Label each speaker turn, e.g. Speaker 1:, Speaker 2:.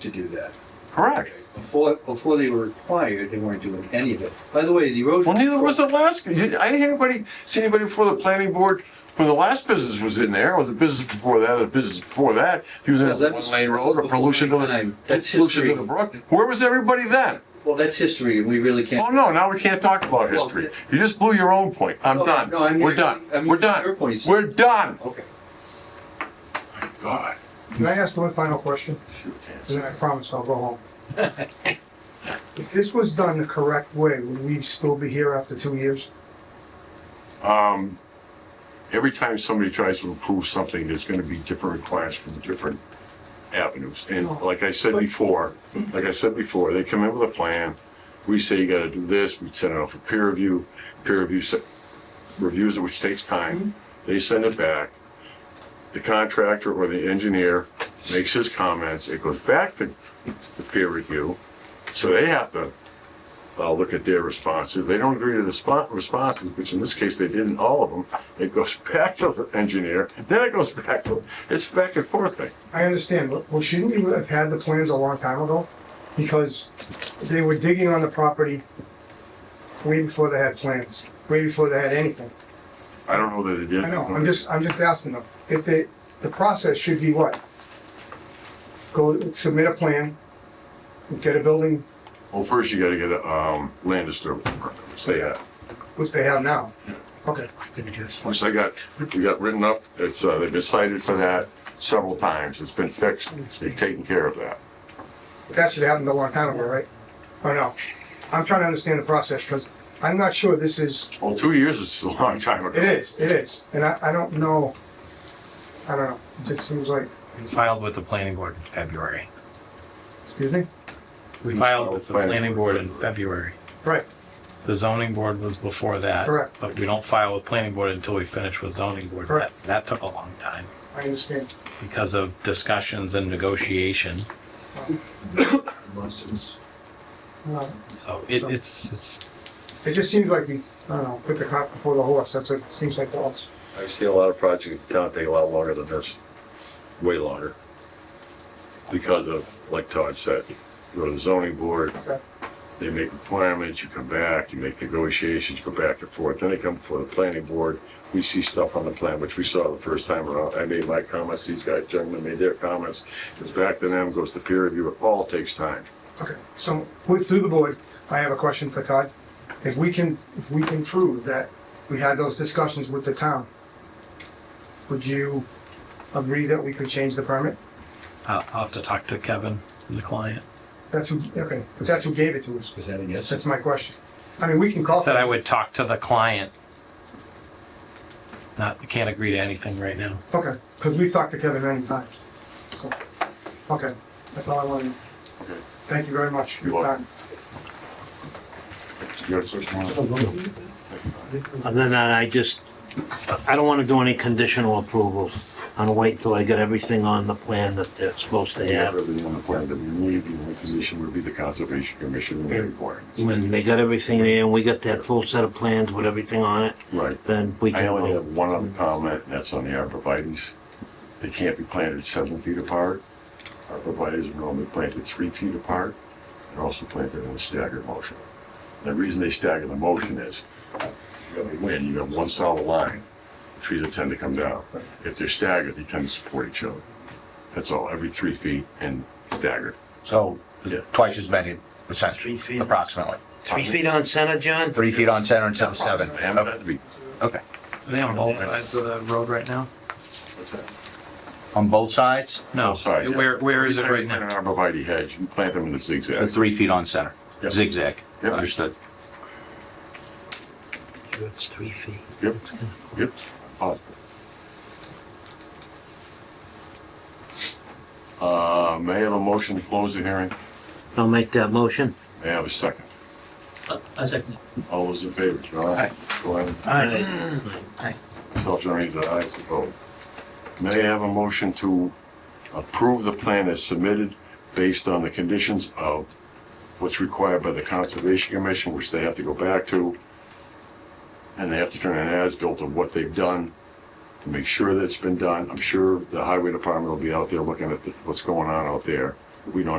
Speaker 1: to do that.
Speaker 2: Correct.
Speaker 1: Before, before they were required, they weren't doing any of it. By the way, the erosion.
Speaker 2: Well, neither was the last, I didn't hear anybody, see anybody before the planning board when the last business was in there, or the business before that, or the business before that, using
Speaker 1: Well, that
Speaker 2: a
Speaker 1: was
Speaker 2: one lane road or
Speaker 1: before
Speaker 2: pollution to
Speaker 1: my time.
Speaker 2: the,
Speaker 1: That's
Speaker 2: pollution to
Speaker 1: history.
Speaker 2: the brook. Where was everybody then?
Speaker 1: Well, that's history and we really
Speaker 2: Oh,
Speaker 1: can't.
Speaker 2: no, now we can't talk about
Speaker 1: Well,
Speaker 2: history.
Speaker 1: th-
Speaker 2: You just blew your own point. I'm
Speaker 1: No,
Speaker 2: done.
Speaker 1: no, I'm
Speaker 2: We're
Speaker 1: using-
Speaker 2: done.
Speaker 1: I'm
Speaker 2: We're
Speaker 1: using your Oh,
Speaker 2: done.
Speaker 1: points.
Speaker 2: We're done.
Speaker 1: Okay.
Speaker 2: God.
Speaker 3: Can I ask one final question?
Speaker 2: Shoot,
Speaker 3: And then I promise I'll go home. If this was done the correct way, would we still be here after two years?
Speaker 2: Um, every time somebody tries to improve something, there's gonna be different requirements from different avenues. And like I said before, like I said before, they come in with a plan, we say you gotta do this, we send it off for peer review, peer review se- reviews it, which takes time, they send it back. The contractor or the engineer makes his comments, it goes back to the peer review, so they have to uh, look at their responses. If They don't agree to the spot responses, which in this case they didn't all of them. It goes back to the engineer, then it goes back to it's back and forth thing.
Speaker 3: I understand, but well, shouldn't we have had the plans a long time ago? Because they were digging on the property way before they had plans, way before they had anything.
Speaker 2: I don't know that it did.
Speaker 3: I know, I'm just, I'm just asking them, if they, the process should be what? Go submit a plan, get a building,
Speaker 2: Well, first you got to get a um, land disturbance permit, which they had.
Speaker 3: which they have now. Okay.
Speaker 2: Which they got, we got written up. It's uh, they've been cited for that several times. It's been fixed. They've taken care of that.
Speaker 3: That should have happened a long time ago, right? Or no? I'm trying to understand the process, because I'm not sure this is,
Speaker 2: Well, two years is a long time ago.
Speaker 3: it is, it is, and I, I don't know, I don't know, it just seems like,
Speaker 4: We filed with the planning board in February.
Speaker 3: excuse me?
Speaker 4: We filed with the
Speaker 2: Planning
Speaker 4: planning
Speaker 2: board.
Speaker 4: board in February.
Speaker 3: Right,
Speaker 4: The zoning board was before that.
Speaker 3: Correct.
Speaker 4: But we don't file with planning board until we finish with zoning board.
Speaker 3: Correct.
Speaker 4: That- That took a long time
Speaker 3: I understand.
Speaker 4: because of discussions and negotiation.
Speaker 3: No,
Speaker 4: So it, it's, it's,
Speaker 3: Uh, It just seems like we, I don't know, put the cart before the horse, that's what it seems like to us.
Speaker 5: I've seen a lot of projects in town take a lot longer than this, way longer.
Speaker 2: because of, like Todd said, you go to the zoning board,
Speaker 3: Okay.
Speaker 2: they make requirements, you come back, you make negotiations, go back and forth, then they come before the planning board, we see stuff on the plan, which we saw the first time around, I made my comments, these guys, gentlemen made their comments, goes back to them, goes to peer review, it all takes time.
Speaker 3: Okay, so with, through the board, I have a question for Todd. If we can, if we can prove that we had those discussions with the town, would you agree that we could change the permit?
Speaker 4: I'll I'll have to talk to Kevin, the client.
Speaker 3: That's who, okay, but that's who gave it to us.
Speaker 1: Is that a yes?
Speaker 3: That's my question. I mean, we can call.
Speaker 4: Said I would talk to the client. Not, can't agree to anything right now.
Speaker 3: Okay, because we've talked to Kevin many times. So, Okay, that's all I wanted.
Speaker 2: Okay.
Speaker 3: Thank you very much for
Speaker 2: You're
Speaker 3: your
Speaker 2: welcome.
Speaker 3: time.
Speaker 2: You got a search warrant?
Speaker 6: And then I just, I don't want to do any conditional approvals. I'm gonna wait till I get everything on the plan that they're supposed to
Speaker 2: You got
Speaker 6: have.
Speaker 2: everything on the plan that we need, the only condition would be the conservation commission and their requirements.
Speaker 6: When they got everything there and we got that full set of plans with everything on it,
Speaker 2: Right.
Speaker 6: then we
Speaker 2: I
Speaker 6: can
Speaker 2: only have
Speaker 6: vote.
Speaker 2: one other comment, and that's on the arborvitae's. They can't be planted seven feet apart. Arborvitae's are normally planted three feet apart. They're also planted in a staggered motion. The reason they stagger the motion is, you have a wind, you have one solid line, trees will tend to come down. If they're staggered, they tend to support each other. That's all, every three feet and staggered.
Speaker 7: So
Speaker 2: Yeah.
Speaker 7: twice as many, essentially,
Speaker 6: Three feet.
Speaker 7: approximately.
Speaker 6: Three feet on center, John?
Speaker 7: Three feet on center instead of seven.
Speaker 2: They haven't had to be-
Speaker 7: Okay.
Speaker 4: Are they on both sides of the road right now?
Speaker 2: what's that?
Speaker 7: On both sides,
Speaker 4: No.
Speaker 2: Both sides, yeah.
Speaker 4: Where, where is it right
Speaker 2: An
Speaker 4: now?
Speaker 2: arborvitae hedge, you plant them in a
Speaker 7: the
Speaker 2: zigzag.
Speaker 7: three feet on center,
Speaker 2: Yep.
Speaker 7: zigzag.
Speaker 2: Yep.
Speaker 7: Understood.
Speaker 6: It's three feet.
Speaker 2: Yep, yep. Pause. Uh, may I have a motion to close the hearing?
Speaker 6: I'll make that motion.
Speaker 2: May I have a second?
Speaker 4: A second.
Speaker 2: All those in favor, John? Aye. Glenn? Myself, John Reed, aye, it's a vote. May I have a motion to approve the plan as submitted based on the conditions of what's required by the Conservation Commission, which they have to go back to, and they have to turn an as-built of what they've done to make sure that's been done. I'm sure the Highway Department will be out there looking at the- what's going on out there. We don't